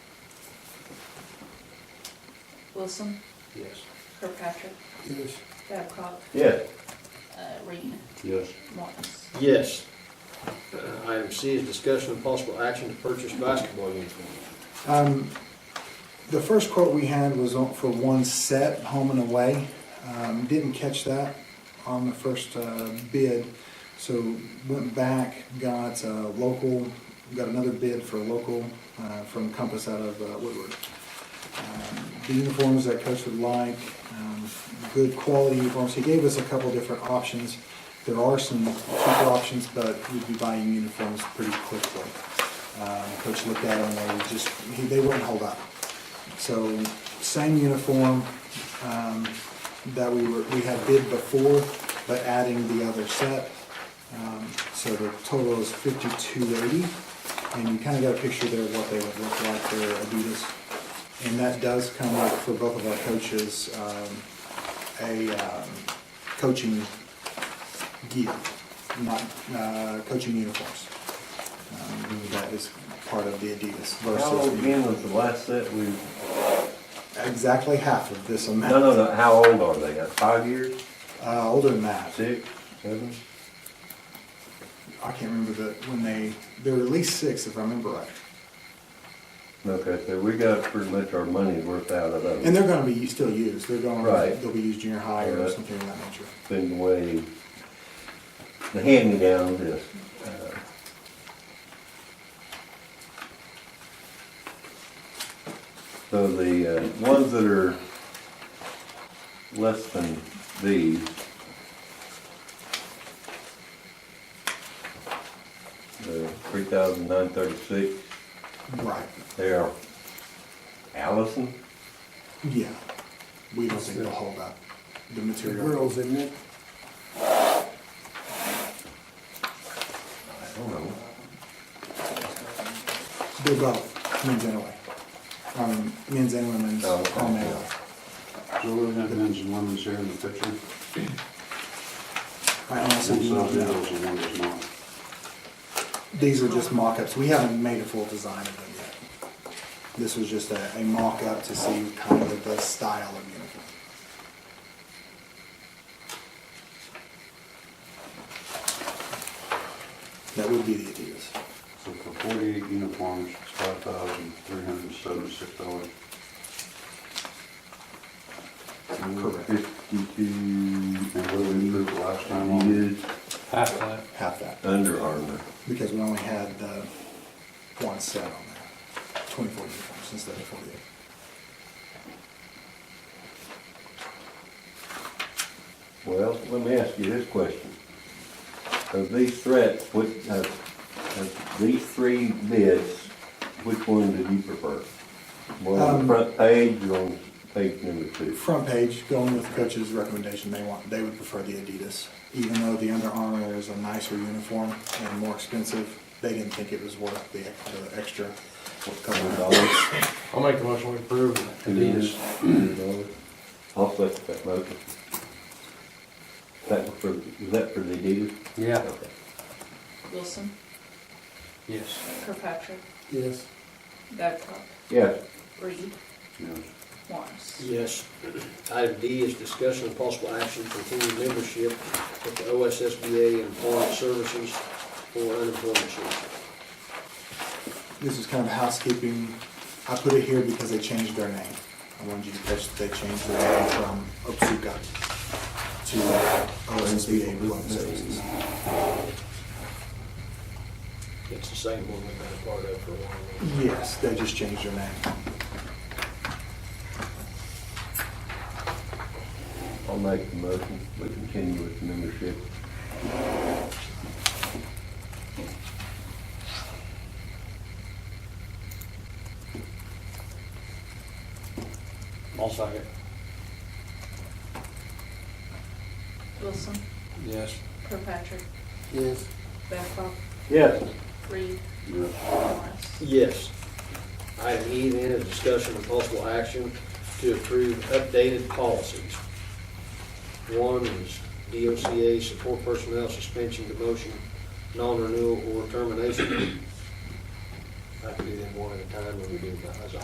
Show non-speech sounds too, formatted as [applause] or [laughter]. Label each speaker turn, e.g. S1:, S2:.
S1: Wilson,
S2: Yes.
S1: Kirkpatrick,
S2: Yes.
S1: Babcock,
S3: Yes.
S1: uh, Reed,
S3: Yes.
S1: Martins.
S4: Yes. Uh, Item C is discussion of possible action to purchase basketball uniforms.
S5: Um, The first quote we had was on- for one set, home and away. Um, Didn't catch that on the first uh, bid, so went back, got a local, got another bid for local uh, from Compass out of uh, Woodward. Um, The uniforms that Coach would like, um, good quality uniforms. He gave us a couple different options. There are some cheaper options, but we'd be buying uniforms pretty quickly. Um, Coach looked at them, and they just, he- they wouldn't hold up. So same uniform um, that we were, we had bid before, but adding the other set. Um, So the total is fifty-two eighty, and you kind of got a picture there of what they would look like, they're Adidas. And that does come up for both of our coaches, um, a um, coaching gear, not uh, coaching uniforms. Um, That is part of the Adidas
S3: How old
S5: versus
S3: again was the last set we,
S5: exactly half of this
S3: no, no,
S5: amount.
S3: no, how old are they? Uh, Five years,
S5: Uh, Older than that.
S3: six, seven?
S5: I can't remember the, when they, they were at least six, if I remember right.
S3: Okay, so we got pretty much our money's worth out of
S5: And
S3: them.
S5: they're gonna be still used, they're going,
S3: Right.
S5: they'll be used junior high or
S3: Right.
S5: something of that nature.
S3: Been the way, the hand-me-down is, uh, So the uh, ones that are less than these, the three thousand nine thirty-six,
S5: Right,
S3: they are Allison?
S5: yeah. We don't think they'll hold up the
S2: The
S5: material.
S2: girls, isn't it?
S3: I don't know.
S5: They're both men's and away. Um, men's and women's
S3: Oh, okay.
S5: all male.
S6: So we have men's and women's here in the picture.
S5: I
S6: One
S5: honestly
S6: size
S5: do not know.
S6: deals and one does not.
S5: These are just mock-ups. We haven't made a full design of them yet. This was just a, a mock-up to see kind of the style of uniform. That would be the Adidas.
S6: So for forty-eight uniforms, it's five thousand three hundred and seventy-six dollars.
S5: Correct.
S3: Fifty-two,
S6: And what did we approve last time on?
S3: is
S2: Half that.
S5: Half that,
S3: Under Armour.
S5: because we only had the one set on there. Twenty-four uniforms instead of forty-eight.
S3: Well, let me ask you this question. Of these threats, what, of, of these three bids, which one did you prefer? One on
S5: Um,
S3: the front page or on page number two?
S5: Front page, going with coach's recommendation, they want, they would prefer the Adidas. Even though the Under Armour is a nicer uniform and more expensive, they didn't think it was worth the, the extra couple of dollars.
S2: I'll make the motion we approve. Adidas.
S3: I'll second that motion. That was for, was that for the Adidas?
S2: Yeah.
S3: Okay.
S1: Wilson,
S2: Yes.
S1: Kirkpatrick,
S2: Yes.
S1: Babcock,
S3: Yeah,
S1: Reed,
S6: Yes.
S1: Morris.
S4: Yes. [clears throat] Item D is discussion of possible action to continue membership with the OSSBA and Foreign Services for unemployment insurance.
S5: This is kind of housekeeping. I put it here because they changed their name. I wanted you to catch that they changed their name from Otsuka to OSBA Employment Services.
S4: It's the same one we've been a part of for a while.
S5: Yes, they just changed their name.
S3: I'll make the motion. We continue with the membership.
S2: I'll second.
S1: Wilson,
S2: Yes.
S1: Kirkpatrick,
S2: Yes.
S1: Babcock,
S3: Yes.
S1: Reed,
S6: Yes.
S1: Morris.
S4: Yes. Item E then is discussion of possible action to approve updated policies. One is DOCA support personnel suspension, demotion, non-renewal, or termination. I can do them one at a time when we do that as a